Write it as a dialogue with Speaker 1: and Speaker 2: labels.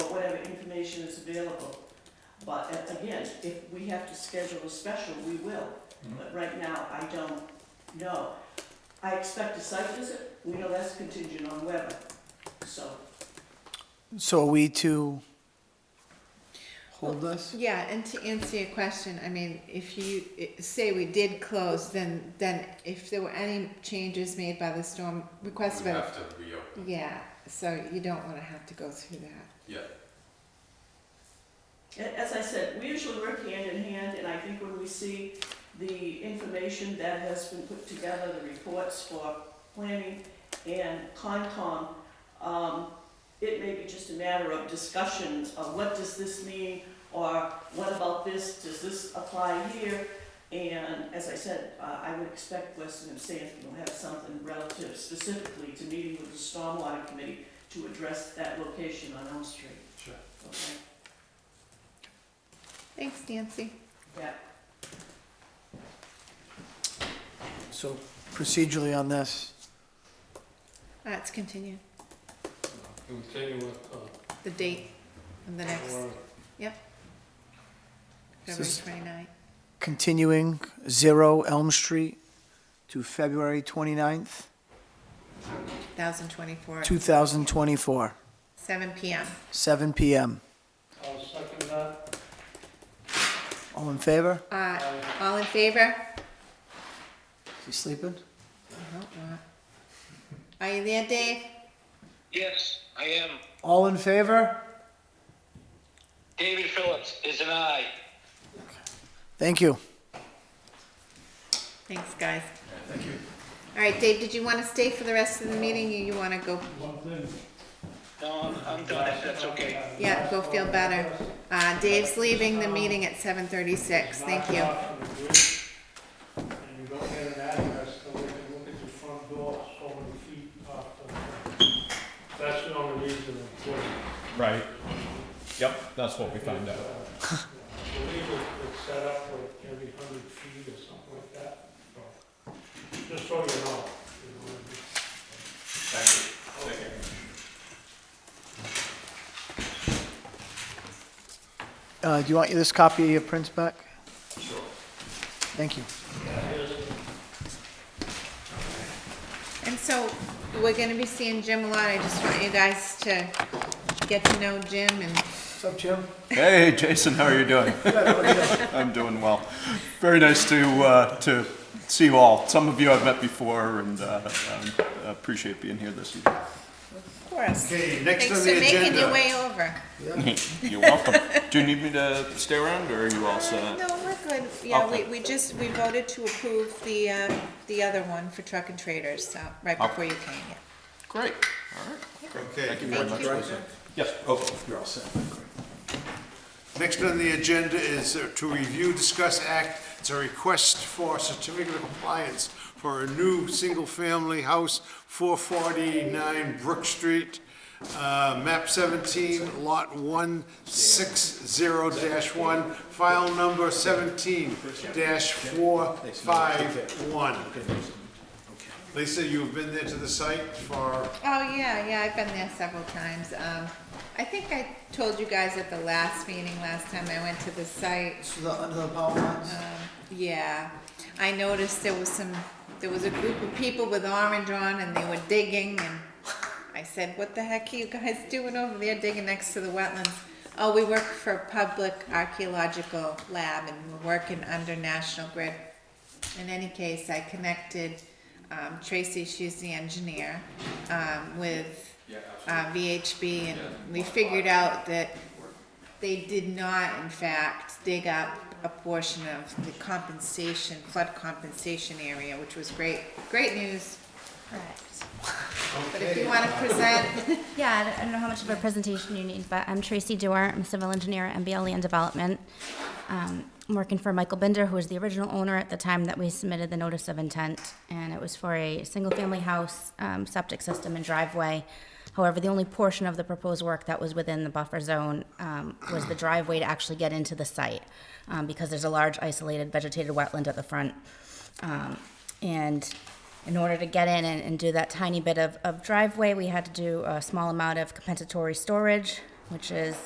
Speaker 1: information is available. But uh, again, if we have to schedule a special, we will,
Speaker 2: Mhm.
Speaker 1: but right now, I don't know. I expect a site visit, we know that's contingent on weather, so.
Speaker 3: So are we to hold this?
Speaker 4: Yeah, and to answer your question, I mean, if you eh, say we did close, then, then if there were any changes made by the storm request,
Speaker 5: We
Speaker 4: but,
Speaker 5: have to reopen,
Speaker 4: yeah, so you don't wanna have to go through that.
Speaker 5: yeah.
Speaker 1: A- As I said, we usually work hand in hand, and I think when we see the information that has been put together, the reports for planning and Concom, um, it may be just a matter of discussions of what does this mean, or what about this, does this apply here? And as I said, uh, I would expect Weston and Sampson will have something relative specifically to meeting with the Stormwater Committee to address that location on Elm Street,
Speaker 5: Sure.
Speaker 1: okay?
Speaker 4: Thanks, Nancy.
Speaker 1: Yeah.
Speaker 3: So procedurally on this,
Speaker 4: Uh, it's continued,
Speaker 2: It would tell you what,
Speaker 4: the date of the
Speaker 2: uh,
Speaker 4: next,
Speaker 2: or
Speaker 3: So
Speaker 4: February
Speaker 3: s-
Speaker 4: twenty-ninth.
Speaker 3: continuing Zero Elm Street to February 29th,
Speaker 4: 2024,
Speaker 3: 2024,
Speaker 4: 7 p.m.
Speaker 3: seven PM.
Speaker 2: I'll second that.
Speaker 3: All in favor?
Speaker 4: Uh, all in favor?
Speaker 3: Is he sleeping?
Speaker 4: I hope not. Are you there, Dave?
Speaker 6: Yes, I am.
Speaker 3: All in favor?
Speaker 6: David Phillips is an aye.
Speaker 3: Thank you.
Speaker 4: Thanks, guys. thank you. All right, Dave, did you want to stay for the rest of the meeting, or you want to go?
Speaker 2: One thing.
Speaker 6: No, I'm- I'm done, if that's okay.
Speaker 4: Yeah, go feel better. Uh, Dave's leaving the meeting at 7:36. Thank you.
Speaker 2: Knock off the roof, And you don't get an address, so they can look at your front door so many feet off the. That's the only reason it's good.
Speaker 7: Right. Yep, that's what we found out.
Speaker 2: It's, uh, I believe it- it's set up for every hundred feet or something like that, so, just so you know. you know what I mean?
Speaker 5: Thank you.
Speaker 3: Uh, do you want this copy of your prints back?
Speaker 5: Sure.
Speaker 3: Thank you.
Speaker 4: And so, we're gonna be seeing Jim a lot. I just want you guys to get to know Jim and
Speaker 3: What's up, Jim?
Speaker 7: Hey, Jason, how are you doing? I'm doing well. Very nice to, uh, to see you all. Some of you I've met before and, uh, um, appreciate being here this evening.
Speaker 4: of course.
Speaker 8: Okay, next
Speaker 4: Thanks
Speaker 8: on
Speaker 4: for
Speaker 8: the
Speaker 4: making your
Speaker 8: agenda.
Speaker 4: way over.
Speaker 7: You're welcome. Do you need me to stay around or are you all set?
Speaker 4: No, we're good. Yeah, we,
Speaker 7: Okay.
Speaker 4: we just, we voted to approve the, uh, the other one for truck and traders, so, right
Speaker 7: Oh.
Speaker 4: before you came, yeah.
Speaker 7: Great, all right.
Speaker 8: Okay,
Speaker 7: Thank you very much. Lisa. Yes, okay. You're all set.
Speaker 8: next on the agenda is uh, to review, discuss, act, it's a request for certificate of compliance for a new single-family house, 449 Brook Street, uh, map 17, lot 160-1, file number 17-451. Lisa, you've been there to the site for
Speaker 4: Oh, yeah, yeah, I've been there several times. Um, I think I told you guys at the last meeting, last time I went to the site, Um,
Speaker 3: Under the power lines?
Speaker 4: yeah. I noticed there was some, there was a group of people with orange on and they were digging and I said, what the heck are you guys doing over there digging next to the wetlands? Oh, we work for a public archaeological lab and we're working under National Grid. In any case, I connected, um, Tracy, she's the engineer, um, with, uh, VHB and we figured out that they did not, in fact, dig up a portion of the compensation, flood compensation area, which was great, great news. Correct. But if you wanna present,
Speaker 9: Yeah, I don't- I don't know how much of a presentation you need, but I'm Tracy Dewar. I'm a civil engineer at MBL Land Development. Um, I'm working for Michael Bender, who was the original owner at the time that we submitted the notice of intent. And it was for a single-family house, um, septic system and driveway. However, the only portion of the proposed work that was within the buffer zone um, was the driveway to actually get into the site, um, because there's a large isolated vegetated wetland at the front. Um, and in order to get in and, and do that tiny bit of, of driveway, we had to do a small amount of compensatory storage, which is